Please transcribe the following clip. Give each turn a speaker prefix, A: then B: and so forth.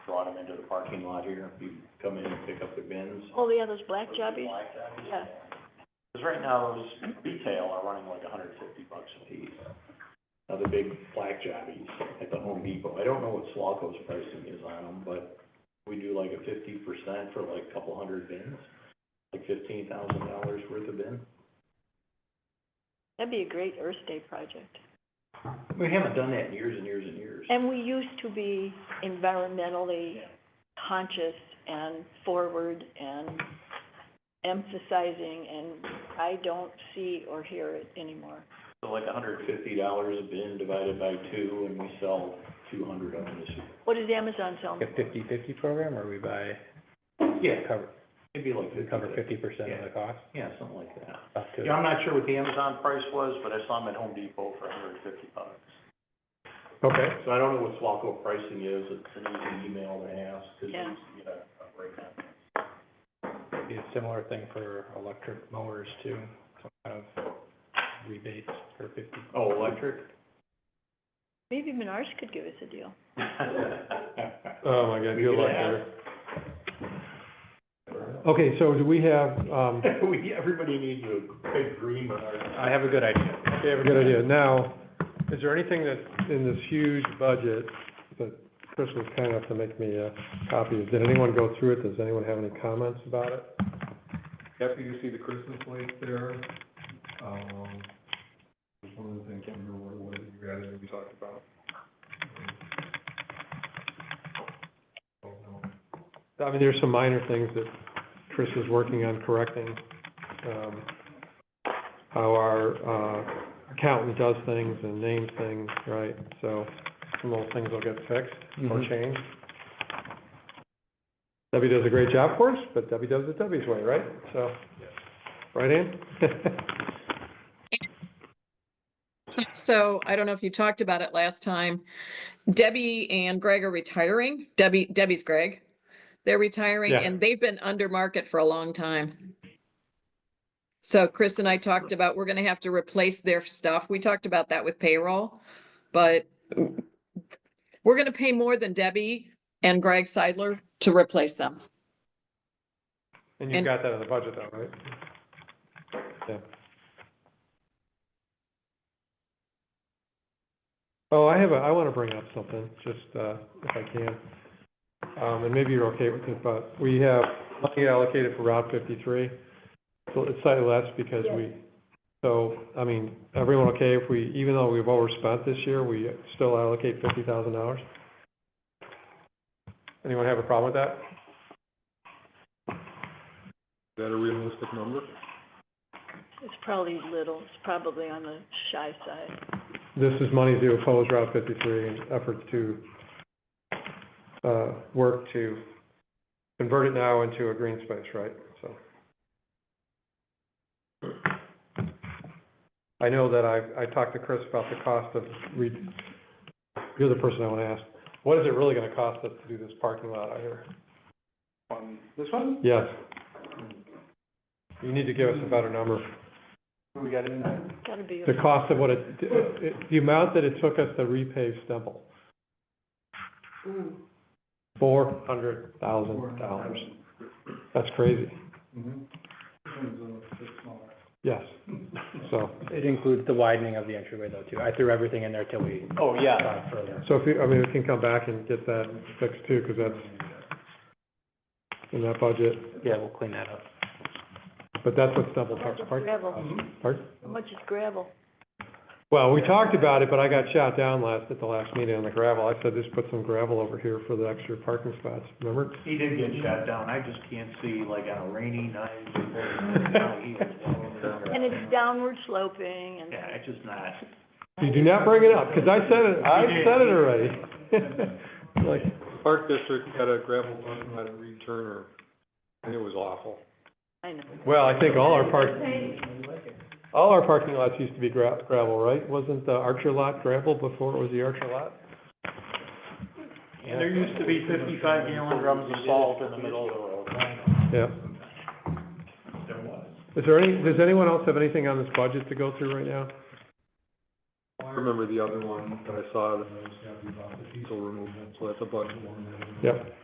A: into the parking lot here, if you come in and pick up the bins.
B: Oh, yeah, those black jobbies,
A: Like that.
B: yeah.
A: Because right now, those retail are running like hundred fifty bucks a piece. Now, the big black jobbies at the Home Depot, I don't know what Slawko's pricing is on them, but we do like a fifty percent for like a couple hundred bins, like fifteen thousand dollars worth of bin.
B: That'd be a great Earth Day project.
A: We haven't done that in years and years and years.
B: And we used to be environmentally conscious and forward and emphasizing, and I don't see or hear it anymore.
A: So like hundred fifty dollars a bin divided by two, and we sell two hundred of them this year.
B: What does Amazon sell?
C: Like A fifty-fifty program, or we buy,
A: Yeah,
C: cover,
A: maybe like
C: we
A: fifty.
C: cover fifty percent of
A: Yeah.
C: the cost,
A: Yeah, something like that.
C: up to.
A: Yeah, I'm not sure what the Amazon price was, but I saw them at Home Depot for hundred and fifty bucks.
C: Okay.
A: So I don't know what Swalco pricing is, it's an easy email to ask, because
B: Yeah.
A: you get a, a breakdown.
C: Be a similar thing for electric mowers too, some kind of rebates for fifty.
A: Oh, electric?
B: Maybe Menards could give us a deal.
D: Oh, my God,
A: We
D: you're
A: could
D: like
A: ask.
D: Okay, so do we have, um,
A: We, everybody needs a big green on our.
C: I have a good idea.
D: okay, I have a good idea. Now, is there anything that, in this huge budget, that Chris was kind enough to make me a copy of? Did anyone go through it? Does anyone have any comments about it?
E: After you see the Christmas lights there, um, there's one other thing, I can't remember what it was that you guys maybe talked about. Oh, no. I mean, there's some minor things that Chris is working on correcting, um, how our, uh, accountant does things and names things, right? So some little things will get fixed or
C: Mhm.
D: changed. Debbie does a great job for us, but Debbie does it Debbie's way, right? So, right, Ann?
F: So- So I don't know if you talked about it last time. Debbie and Greg are retiring. Debbie, Debbie's Greg. They're retiring
D: Yeah.
F: and they've been under market for a long time. So Chris and I talked about, we're gonna have to replace their stuff. We talked about that with payroll, but we're gonna pay more than Debbie and Greg Seidler to replace them.
D: And you've
F: And-
D: got that in the budget though, right? Yeah. Oh, I have a, I want to bring up something, just, uh, if I can. Um, and maybe you're okay with it, but we have money allocated for Route fifty-three. So it's slightly less because
B: Yes.
D: we, so, I mean, everyone okay if we, even though we've overspent this year, we still allocate fifty thousand dollars? Anyone have a problem with that?
E: Is that a realistic number?
B: It's probably little, it's probably on the shy side.
D: This is money to oppose Route 53 and efforts to, uh, work to convert it now into a green space, right? So. I know that I, I talked to Chris about the cost of re, you're the person I want to ask. What is it really going to cost us to do this parking lot out here?
C: On this one,
D: Yes. You need to give us a better number.
C: we got in there.
B: Gotta be,
D: The cost of what it, it- the amount that it took us to repave Stemple.
B: Hmm.
D: Four hundred thousand dollars. That's crazy.
A: Mm-hmm.
D: Yes, so,
C: It includes the widening of the entryway though too. I threw everything in there till we
A: Oh, yeah.
C: got further.
D: so if you, I mean, we can come back and get that fixed too, because that's in that budget,
C: Yeah, we'll clean that up.
D: but that's what Stemple
B: how much
D: Park,
B: is
D: Park,
B: gravel?
D: pardon?
B: How much is gravel?
D: Well, we talked about it, but I got shot down last, at the last meeting on the gravel. I said, just put some gravel over here for the extra parking spots, remember?
A: He did get shot down, I just can't see, like, on a rainy night, how he was going there.
B: And it's downward sloping and.
A: Yeah, it's just not,
D: You do not bring it up, because I said it, I said it already. Like,
E: Park District had a gravel parking lot at Reed Turner, and it was awful.
B: I know.
D: well, I think all our park, all our parking lots used to be gra- gravel, right? Wasn't the Archer lot gravel before it was the Archer lot?
A: and there used to be fifty-five gallon drums of salt in the middle of the road.
D: Yeah.
A: There was.
D: Is there any, does anyone else have anything on this budget to go through right now?
E: I remember the other one that I saw that I was happy about, the diesel removal, so that's a budget one.
D: Yep.